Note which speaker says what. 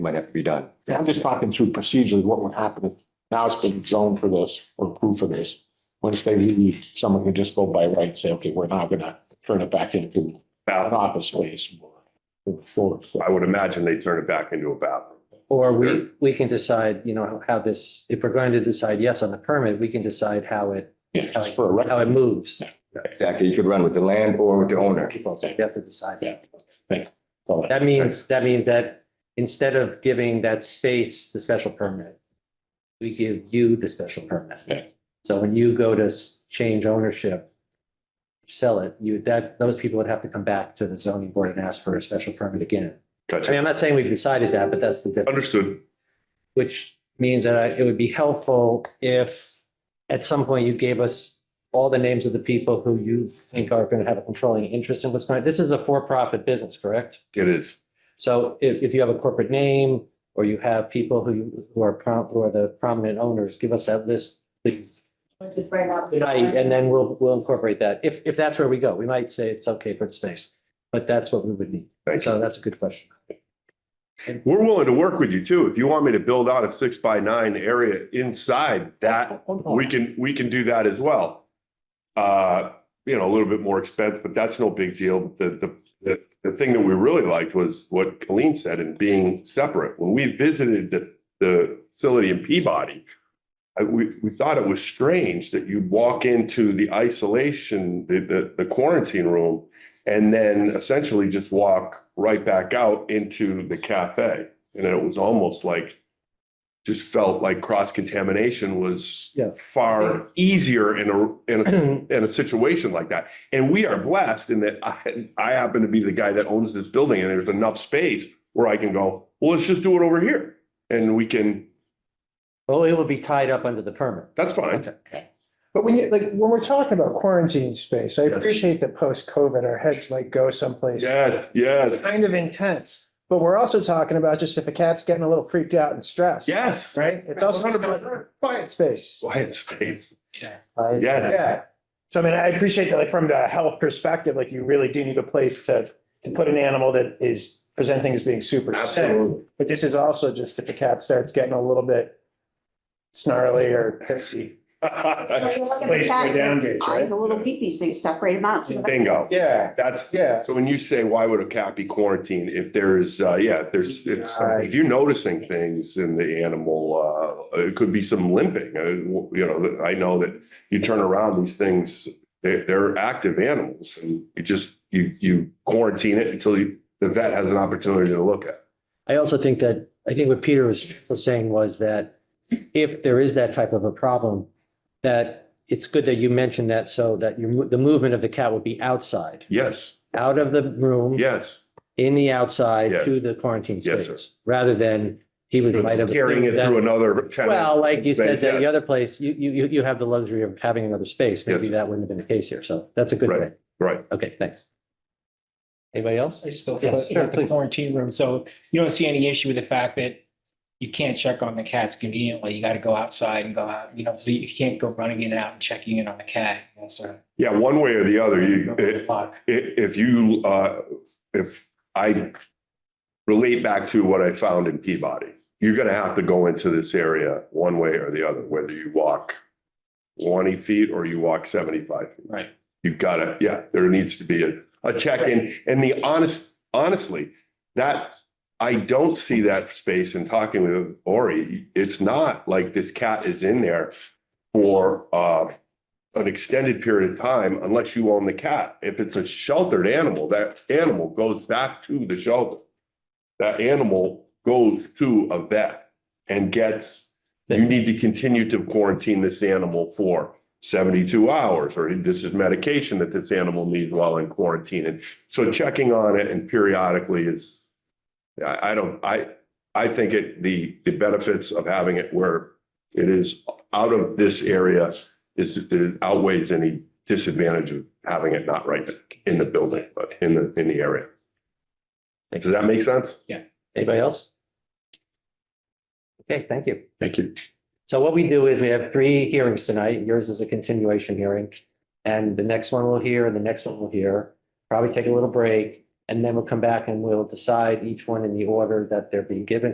Speaker 1: might have to be done.
Speaker 2: Yeah, I'm just talking through procedurally, what would happen if now it's been zoned for this or approved for this. Once they leave, someone could just go by right and say, okay, we're now gonna turn it back into an
Speaker 3: bathroom.
Speaker 2: office space. or Floor.
Speaker 3: I would imagine they turn it back into a bathroom.
Speaker 4: Or
Speaker 3: Sure.
Speaker 4: we, we can decide, you know, how this, if we're going to decide yes on the permit, we can decide how it,
Speaker 2: Yeah, just for a record.
Speaker 4: how it moves.
Speaker 1: Exactly. You could run with the land or with the owner.
Speaker 4: People, so we have to decide.
Speaker 2: Yeah. Well,
Speaker 4: That means, that means that instead of giving that space the special permit, we give you the special permit.
Speaker 2: Yeah.
Speaker 4: So when you go to s- change ownership, sell it, you, that, those people would have to come back to the zoning board and ask for a special permit again. I mean,
Speaker 3: Gotcha.
Speaker 4: I'm not saying we've decided that, but that's the difference.
Speaker 3: Understood.
Speaker 4: which means that I- it would be helpful if at some point you gave us all the names of the people who you think are going to have a controlling interest in what's going on. This is a for-profit business, correct?
Speaker 3: It is.
Speaker 4: So if, if you have a corporate name or you have people who, who are prom, who are the prominent owners, give us that list, please.
Speaker 5: Just right now.
Speaker 4: Tonight, and then we'll, we'll incorporate that. If, if that's where we go, we might say it's okay for space, but that's what we would need.
Speaker 3: Thank you.
Speaker 4: So that's a good question.
Speaker 3: We're willing to work with you too. If you want me to build out a six by nine area inside that, we can, we can do that as well. Uh, you know, a little bit more expense, but that's no big deal. The, the, the, the thing that we really liked was what Colleen said and being separate. When we visited the, the facility in Peabody, I, we, we thought it was strange that you'd walk into the isolation, the, the, the quarantine room and then essentially just walk right back out into the cafe. And it was almost like, just felt like cross contamination was
Speaker 4: Yeah.
Speaker 3: far easier in a, in a in a situation like that. And we are blessed in that I, I happen to be the guy that owns this building and there's enough space where I can go, well, let's just do it over here. And we can,
Speaker 4: Well, it will be tied up under the permit.
Speaker 3: that's fine.
Speaker 6: But when you, like, when we're talking about quarantine space, I
Speaker 3: Yes.
Speaker 6: appreciate that post-COVID, our heads might go someplace
Speaker 3: Yes, yes,
Speaker 6: kind of intense. But we're also talking about just if a cat's getting a little freaked out and stressed.
Speaker 3: yes.
Speaker 6: Right? It's also about quiet space.
Speaker 3: Quiet space.
Speaker 6: I-
Speaker 3: Yeah.
Speaker 6: Yeah. So I mean, I appreciate that, like, from the health perspective, like, you really do need a place to, to put an animal that is presenting as being super sick. But this is also just if the cat starts getting a little bit snarly or pissy.
Speaker 5: Well, you look at the
Speaker 6: Place
Speaker 5: cat,
Speaker 6: go down
Speaker 5: it's
Speaker 6: gauge,
Speaker 5: Eyes
Speaker 6: right?
Speaker 5: a little peepee, so you separate them out.
Speaker 3: Bingo.
Speaker 6: Yeah.
Speaker 3: That's,
Speaker 6: Yeah.
Speaker 3: so when you say, why would a cat be quarantined? If there's, uh, yeah, if there's, if something- if you're noticing things in the animal, uh, it could be some limping. Uh, You know, I know that you turn around these things, they're, they're active animals and you just, you, you quarantine it until you, the vet has an opportunity to look at.
Speaker 4: I also think that, I think what Peter was was saying was that if there is that type of a problem, that it's good that you mentioned that so that your, mo- the movement of the cat would be outside,
Speaker 3: Yes,
Speaker 4: out of the room,
Speaker 3: yes.
Speaker 4: in the outside
Speaker 3: Yes.
Speaker 4: to the quarantine
Speaker 3: Yes, sir.
Speaker 4: space, rather than he was might have.
Speaker 3: Carrying it through another tenant.
Speaker 4: Well, like you said, that the
Speaker 3: Yes.
Speaker 4: other place, you, you, you- you have the luxury of having another space. Maybe
Speaker 3: Yes.
Speaker 4: that wouldn't have been the case here. So that's a good
Speaker 3: Right.
Speaker 4: thing.
Speaker 3: Right.
Speaker 4: Okay, thanks. Anybody else?
Speaker 7: I just go
Speaker 4: Yes,
Speaker 7: for
Speaker 4: sure,
Speaker 7: the
Speaker 4: please.
Speaker 7: quarantine room. So you don't see any issue with the fact that you can't check on the cats conveniently. You got to go outside and go out, you know, so you can't go running in and out and checking in on the cat. Yes, sir.
Speaker 3: Yeah, one way or the other, you, it-
Speaker 7: Block.
Speaker 3: i- if you, uh, if I relate back to what I found in Peabody, you're gonna have to go into this area one way or the other, whether you walk twenty feet or you walk seventy-five. feet.
Speaker 7: Right.
Speaker 3: You gotta, yeah, there needs to be a, a check-in. And the honest, honestly, that, I don't see that space in talking with Ori. It's not like this cat is in there for, uh, an extended period of time unless you own the cat. If it's a sheltered animal, that animal goes back to the shelter. That animal goes to a vet and gets, you need to continue to quarantine this animal for seventy-two hours, or this is medication that this animal needs while in quarantine. And so checking on it and periodically is, I, I don't, I, I think it, the, the benefits of having it where it is out of this area is it outweighs any disadvantage of having it not right in the building, but in the, in the area.
Speaker 4: Thank
Speaker 3: Does that make sense?
Speaker 4: Anybody else? Okay, thank you.
Speaker 3: Thank you.
Speaker 4: So what we do is we have three hearings tonight. Yours is a continuation hearing. And the next one we'll hear, the next one we'll hear, probably take a little break, and then we'll come back and we'll decide each one in the order that they're being given.